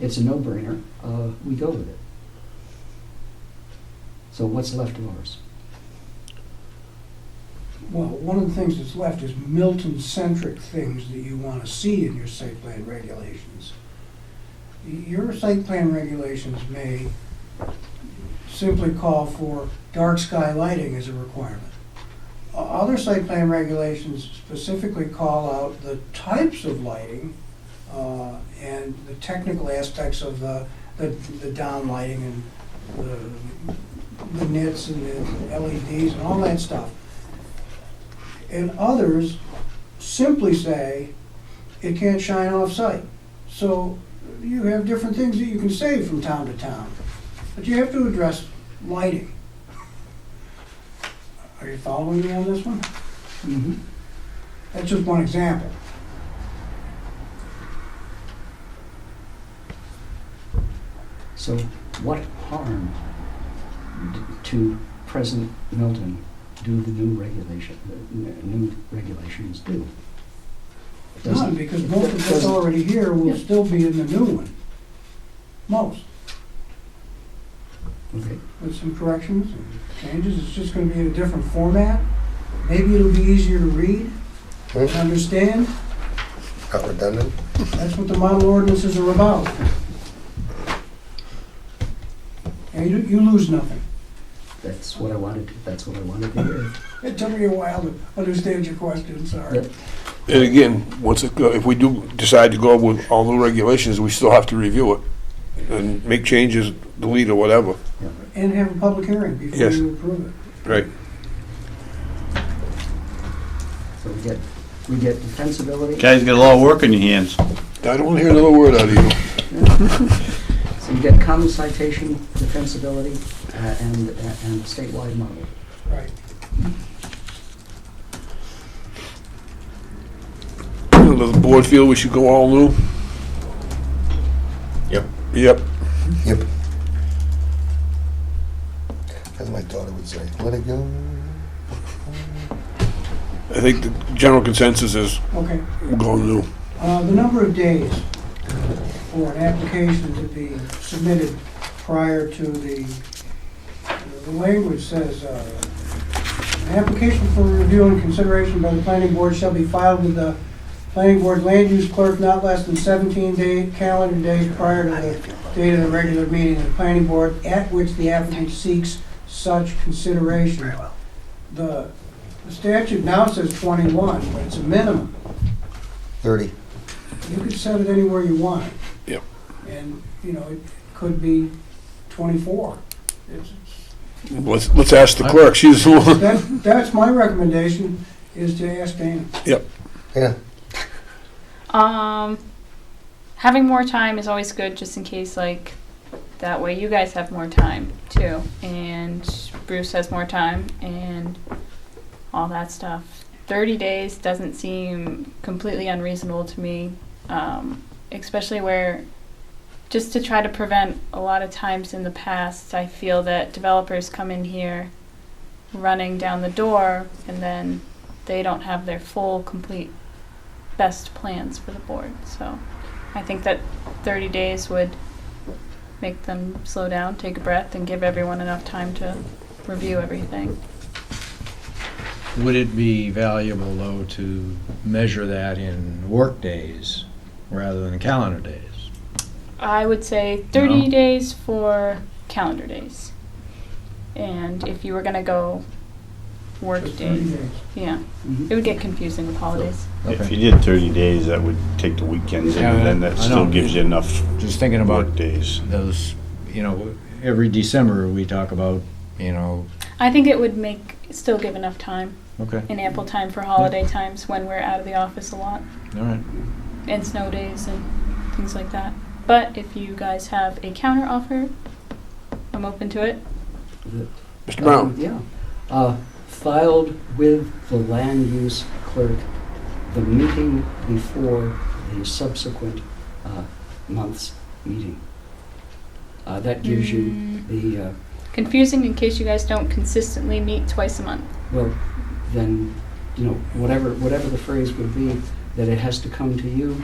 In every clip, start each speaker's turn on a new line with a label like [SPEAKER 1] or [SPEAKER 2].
[SPEAKER 1] it's a no-brainer, uh, we go with it. So what's left of ours?
[SPEAKER 2] Well, one of the things that's left is Milton-centric things that you want to see in your site plan regulations. Your site plan regulations may simply call for dark sky lighting as a requirement. O- Other site plan regulations specifically call out the types of lighting uh, and the technical aspects of the, the the down lighting and the- the nits and the LEDs and all that stuff. And others simply say, it can't shine off-site. So you have different things that you can say from town to town, but you have to address lighting. Are you following me on this one?
[SPEAKER 1] Mm-hmm.
[SPEAKER 2] That's just one example.
[SPEAKER 1] So what harm d- to present Milton do the new regulation, the n- new regulations do? It doesn't-
[SPEAKER 2] None, because most of what's
[SPEAKER 1] doesn't-
[SPEAKER 2] already here will
[SPEAKER 1] Yeah.
[SPEAKER 2] still be in the new one. Most,
[SPEAKER 1] Okay,
[SPEAKER 2] with some corrections and changes, it's just gonna be in a different format. Maybe it'll be easier to read and
[SPEAKER 3] Hmm?
[SPEAKER 2] understand.
[SPEAKER 3] Not redundant?
[SPEAKER 2] That's what the model ordinances are about. And you, you lose nothing.
[SPEAKER 1] that's what I wanted, to- that's what I wanted to hear.
[SPEAKER 2] It took me a while to understand your question, sorry.
[SPEAKER 4] And again, once it, go- if we do decide to go with all the regulations, we still have to review it and make changes, delete or whatever.
[SPEAKER 2] And have a public hearing before
[SPEAKER 4] Yes.
[SPEAKER 2] you approve it.
[SPEAKER 4] Right.
[SPEAKER 1] So we get, we get defensibility,
[SPEAKER 5] Guys got a lot of work on your hands.
[SPEAKER 4] I don't want to hear another word out of you.
[SPEAKER 1] so you get common citation, defensibility, uh, and, and a statewide model.
[SPEAKER 2] Right.
[SPEAKER 4] Does the board feel we should go all new?
[SPEAKER 3] Yep.
[SPEAKER 4] Yep.
[SPEAKER 3] Yep. As my daughter would say, let it go.
[SPEAKER 4] I think the general consensus is
[SPEAKER 2] Okay.
[SPEAKER 4] we're going new.
[SPEAKER 2] Uh, The number of days for an application to be submitted prior to the, the language says, uh, "An application for review and consideration by the planning board shall be filed with the planning board land use clerk not less than 17 day, calendar days prior to the date of the regular meeting of the planning board at which the applicant seeks such consideration." The the statute now says 21, but it's a minimum.
[SPEAKER 3] Thirty.
[SPEAKER 2] You can set it anywhere you want.
[SPEAKER 4] Yep.
[SPEAKER 2] And, you know, it could be 24. It's-
[SPEAKER 4] Let's, let's ask the clerk, she's the one.
[SPEAKER 2] That, that's my recommendation, is to ask Dana.
[SPEAKER 3] Yeah,
[SPEAKER 6] Um, having more time is always good, just in case, like, that way you guys have more time too, and Bruce has more time, and all that stuff. 30 days doesn't seem completely unreasonable to me, um, especially where just to try to prevent a lot of times in the past, I feel that developers come in here running down the door and then they don't have their full, complete best plans for the board. So I think that 30 days would make them slow down, take a breath, and give everyone enough time to review everything.
[SPEAKER 7] Would it be valuable, though, to measure that in work days rather than calendar days?
[SPEAKER 6] I would say 30
[SPEAKER 7] No.
[SPEAKER 6] days for calendar days. And if you were going to go work
[SPEAKER 2] Just 30
[SPEAKER 6] days,
[SPEAKER 2] days.
[SPEAKER 6] yeah,
[SPEAKER 2] Mm-hmm.
[SPEAKER 6] it would get confusing with holidays.
[SPEAKER 5] If you
[SPEAKER 7] Okay.
[SPEAKER 5] did 30 days, that would take the weekends,
[SPEAKER 7] Yeah,
[SPEAKER 5] and then that
[SPEAKER 7] I
[SPEAKER 5] still
[SPEAKER 7] know.
[SPEAKER 5] gives you enough
[SPEAKER 7] Just thinking about
[SPEAKER 5] work days.
[SPEAKER 7] those, you know, every December, we talk about, you know,
[SPEAKER 6] I think it would make still give enough time
[SPEAKER 7] okay,
[SPEAKER 6] and ample time for holiday times when we're out of the office a lot.
[SPEAKER 7] all right.
[SPEAKER 6] and snow days and things like that. But if you guys have a counter offer, I'm open to it.
[SPEAKER 4] Mr. Brown,
[SPEAKER 1] Yeah. Uh, Filed with the land use clerk the meeting before the subsequent uh, month's meeting. Uh, That gives you
[SPEAKER 6] Mm,
[SPEAKER 1] the, uh,
[SPEAKER 6] confusing in case you guys don't consistently meet twice a month.
[SPEAKER 1] well, then, you know, whatever, whatever the phrase would be, that it has to come to you,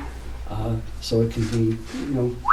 [SPEAKER 1] uh, so it can be, you know,